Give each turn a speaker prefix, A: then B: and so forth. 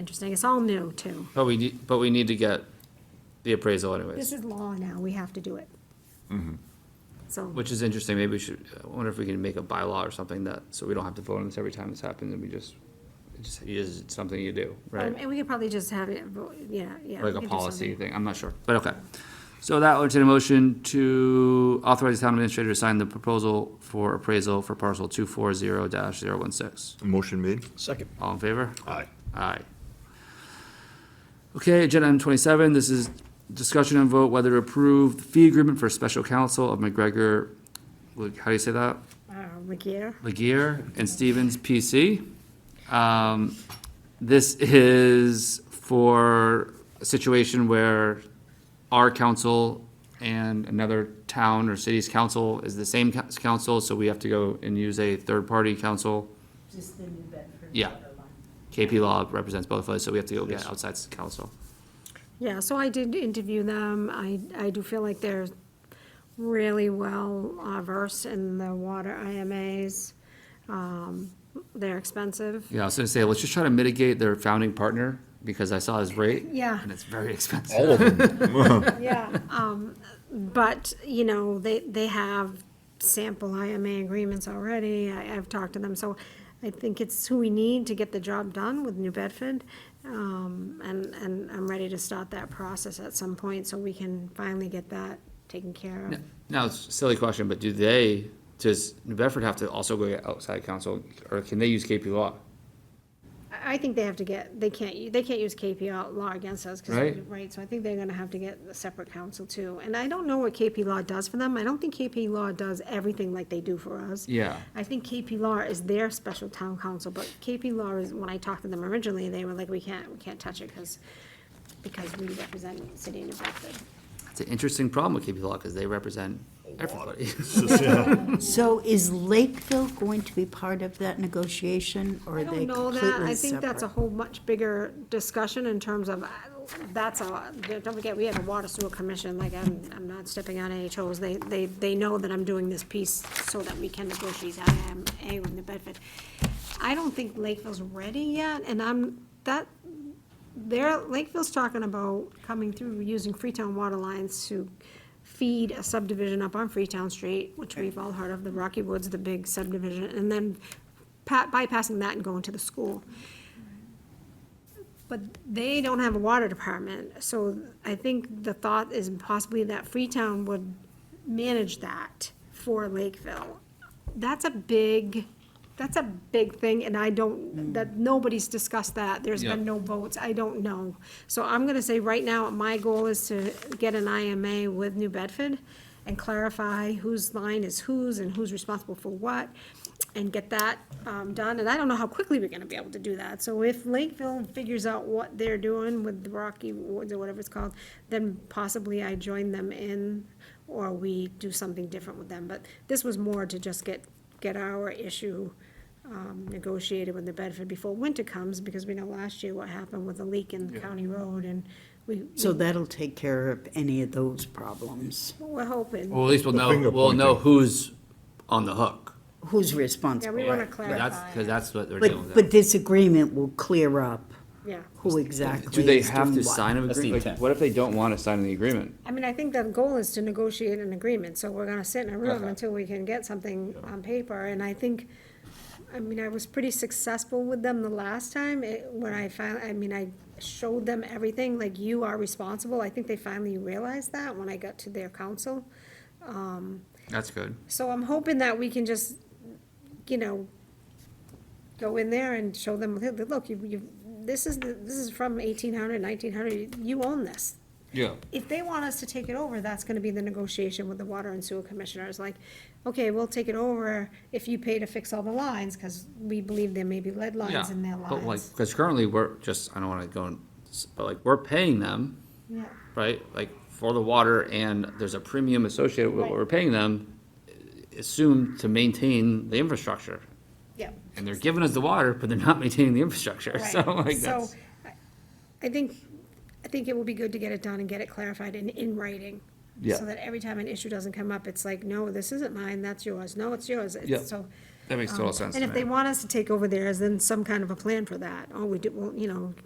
A: Interesting, it's all new, too.
B: But we, need- but we need to get the appraisal anyways,
A: This is law now, we have to do it.
B: Mm-hmm.
A: So, um,
B: which is interesting. Maybe we should, I wonder if we can make a bylaw or something that, so we don't have to vote on this every time this happens and we just, it just is something you do,
A: um,
B: right?
A: and we could probably just have it, vo- yeah, yeah. we
B: Like
A: could
B: a
A: do
B: policy
A: something.
B: thing, I'm not sure, but okay. So that would entertain a motion to authorize the town administrator to sign the proposal for appraisal for parcel two four zero dash zero one six.
C: Motion made.
D: Second.
B: All in favor?
C: Aye.
B: Aye. Okay, agenda item twenty-seven, this is discussion and vote whether to approve the fee agreement for special counsel of McGregor, like, how do you say that?
A: Uh, McGear,
B: Laguerre and Stevens PC. Um, this is for a situation where our council and another town or city's council is the same cou- council, so we have to go and use a third-party council.
E: Just the New Bedford.
B: Yeah.
E: water line.
B: KP Law represents both of us, so we have to go get outside counsel.
A: yeah, so I did interview them, I, I do feel like they're really well uh, versed in the water IMAs. Um, They're expensive.
B: Yeah, I was gonna say, let's just try to mitigate their founding partner, because I saw his rate.
A: Yeah.
B: And it's very expensive.
C: All of them.
A: Yeah. Um, but, you know, they, they have sample IMA agreements already, I, I've talked to them, so I think it's who we need to get the job done with New Bedford. Um, and, and I'm ready to start that process at some point, so we can finally get that taken care of.
B: Now, it's a silly question, but do they, does New Bedford have to also go get outside counsel, or can they use KP Law?
A: I, I think they have to get, they can't, they can't use KP law against us, cause, we-
B: Right.
A: right, so I think they're gonna have to get a separate counsel too. And I don't know what KP law does for them, I don't think KP law does everything like they do for us.
B: Yeah.
A: I think KP Law is their special town council, but KP Law is, when I talked to them originally, they were like, we can't, we can't touch it because, because we represent the city of New Bedford.
B: It's an interesting problem with KP Law, because they represent everybody.
E: So is Lakeville going to be part of that negotiation, or
A: I
E: are
A: don't
E: they
A: know
E: completely
A: that,
E: separate?
A: I think that's a whole much bigger discussion in terms of, uh, that's a, don't forget, we have a water sewer commission, like, I'm, I'm not stepping on any toes. They, they, they know that I'm doing this piece so that we can negotiate IMA with New Bedford. I don't think Lakeville's ready yet, and I'm, that, They're, Lakeville's talking about coming through, using Freetown water lines to feed a subdivision up on Freetown Street, which we've all heard of, the Rocky Woods, the big subdivision, and then pa- bypassing that and going to the school. But they don't have a water department, so I think the thought is possibly that Freetown would manage that for Lakeville. That's a big, that's a big thing, and I don't, that, nobody's discussed that, there's
B: Yeah.
A: been no votes, I don't know. So I'm gonna say right now, my goal is to get an IMA with New Bedford and clarify whose line is whose and who's responsible for what, and get that, um, done, and I don't know how quickly we're gonna be able to do that. So if Lakeville figures out what they're doing with the Rocky Woods or whatever it's called, then possibly I join them in, or we do something different with them, but this was more to just get, get our issue, um, negotiated with the Bedford before winter comes, because we know last year what happened with the leak in the county road, and we,
E: So that'll take care of any of those problems.
A: we're hoping.
B: Well, at least we'll know,
C: finger
B: we'll know who's on the hook.
E: Who's
A: Yeah,
E: responsible?
A: we wanna
B: That's,
A: clarify,
B: because that's what they're dealing
E: But,
B: with.
E: but this agreement will clear up
A: yeah.
E: who exactly
B: Do they
E: is
B: have to
E: doing what.
B: sign an
D: That's the
B: agreement? Like,
D: intent.
B: what if they don't want to sign the agreement?
A: I mean, I think the goal is to negotiate an agreement, so we're gonna sit in a room
B: Okay.
A: until we can get something on paper, and I think, I mean, I was pretty successful with them the last time, it, when I finally, I mean, I showed them everything, like, you are responsible, I think they finally realized that when I got to their council.
B: That's good.
A: So I'm hoping that we can just, you know, go in there and show them, look, you, you, this is, the- this is from 1800, 1900. you own this.
B: Yeah.
A: If they want us to take it over, that's gonna be the negotiation with the water and sewer commissioners, like, okay, we'll take it over if you pay to fix all the lines, cause we believe there may be lead
B: Yeah,
A: lines in their
B: but like,
A: lines.
B: because currently we're just, I don't want to go, and s- but like, we're paying them,
A: Yeah,
B: right? Like, for the water and there's a premium associated with what
A: Right.
B: we're paying them, eh, assumed to maintain the infrastructure.
A: yeah.
B: And they're giving us the water, but they're not maintaining the infrastructure,
A: Right.
B: so like
A: So,
B: that's,
A: I- I think, I think it will be good to get it done and get it clarified in, in writing.
B: Yeah.
A: So that every time an issue doesn't come up, it's like, no, this isn't mine, that's yours, no, it's yours,
B: Yeah.
A: it's so. um,
B: that makes total sense to
A: And if they
B: me.
A: want us to take over theirs, then some kind of a plan for that, oh, we do, well, you know,